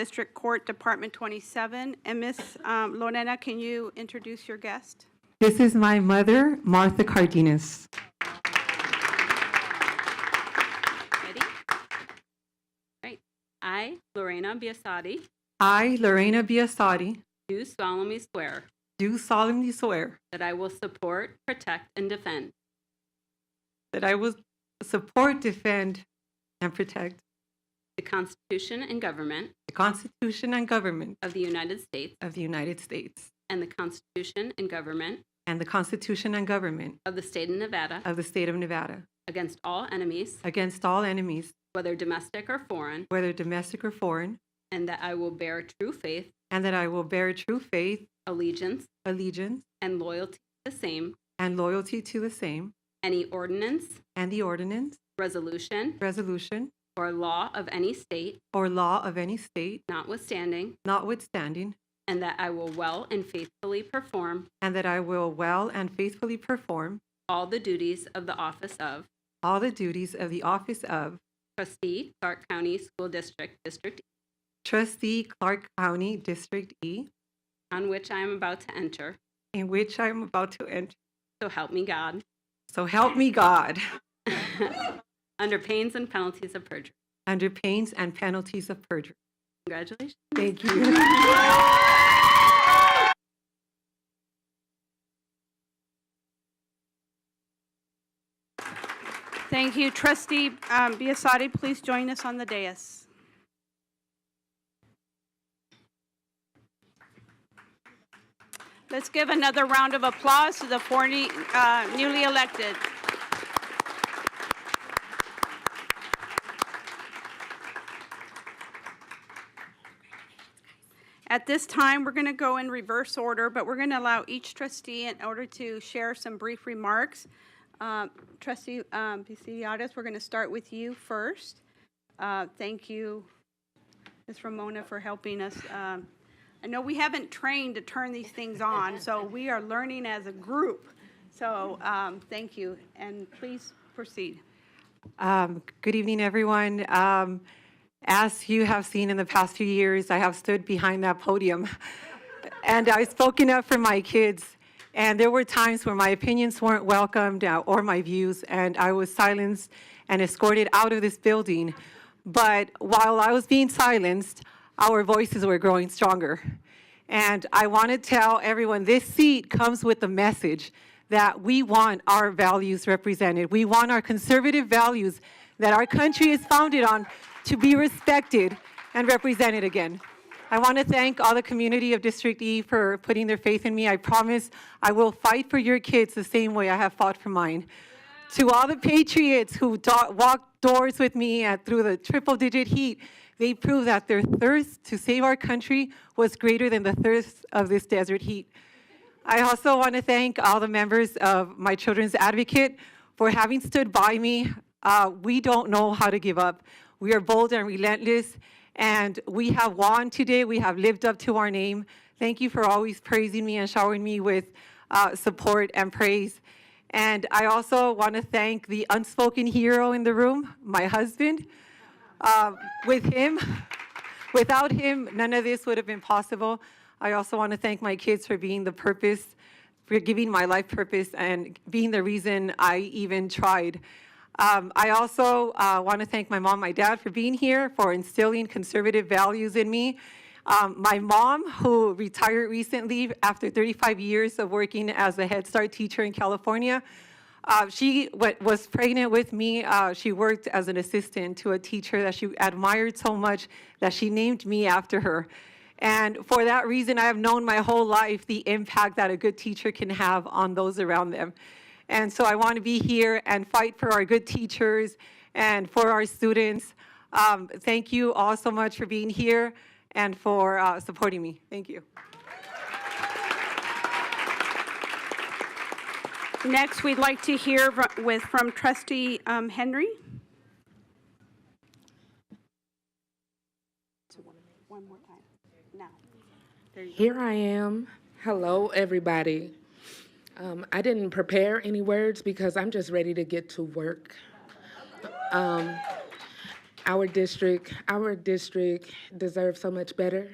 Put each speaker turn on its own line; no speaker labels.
District Court, Department 27. And Ms. um, Lorena, can you introduce your guest?
This is my mother, Martha Cardenas.
Ready? Right. I, Lorena Biassadi,
I, Lorena Biasotti,
do solemnly swear
do solemnly swear
that I will support, protect, and defend
that I will support, defend, and protect
the Constitution and government
the Constitution and government
of the United States
of the United States
and the Constitution and government
and the Constitution and government
of the state of Nevada
of the state of Nevada
against all enemies,
against all enemies,
whether domestic or foreign,
whether domestic or foreign,
and that I will bear true faith,
and that I will bear true faith,
allegiance,
allegiance,
and loyalty to the same,
and loyalty to the same,
any ordinance,
and the ordinance,
resolution,
resolution,
or law of any state
or law of any state,
notwithstanding,
notwithstanding,
and that I will well and faithfully perform
and that I will well and faithfully perform
all the duties of the office of
all the duties of the office of
trustee, Clark County School District, District E,
trustee Clark County District E,
on which I am about to enter.
in which I am about to enter.
So help me God,
So help me God,
under pains and penalties of perjury.
under pains and penalties of perjury.
Congratulations.
Thank you.
Thank you. Trustee um, Biasotti, please join us on the dais. Let's give another round of applause to the four ne- uh, newly elected. At this time, we're going to go in reverse order, but we're going to allow each trustee in order to share some brief remarks. Um, Trustee um, Bisidiatis, we're going to start with you first. Uh, Thank you, Ms. Ramona, for helping us. Um, I know we haven't trained to turn these things on, so we are learning as a group. So um, thank you, and please proceed.
Um, Good evening, everyone. Um, As you have seen in the past few years, I have stood behind that podium, and I've spoken up for my kids. And there were times where my opinions weren't welcomed uh, or my views, and I was silenced and escorted out of this building. But while I was being silenced, our voices were growing stronger. And I want to tell everyone this seat comes with the message that we want our values represented. We want our conservative values that our country is founded on to be respected and represented again. I want to thank all the community of District E for putting their faith in me. I promise I will fight for your kids the same way I have fought for mine to all the patriots who do- walked doors with me at, through the triple digit heat they proved that their thirst to save our country was greater than the thirst of this desert heat i also want to thank all the members of my children's advocate for having stood by me uh, we don't know how to give up we are bold and relentless and we have won today we have lived up to our name thank you for always praising me and showering me with uh, support and praise and I also want to thank the unspoken hero in the room, my husband. Uh, with him, without him, none of this would have been possible. I also want to thank my kids for being the purpose, for giving my life purpose, and being the reason I even tried. Um, I also uh, want to thank my mom, my dad for being here, for instilling conservative values in me. Um, my mom, who retired recently after 35 years of working as a Head Start teacher in California, uh, she wa- was pregnant with me. Uh, she worked as an assistant to a teacher that she admired so much that she named me after her. And for that reason, I have known my whole life the impact that a good teacher can have on those around them. And so I want to be here and fight for our good teachers and for our students. Um, thank you all so much for being here and for uh, supporting me. Thank you.
Next, we'd like to hear fro- with, from trustee um, Henry. One more time, now.
Here I am. Hello, everybody. Um, I didn't prepare any words because I'm just ready to get to work. Um, Our district, our district deserves so much better.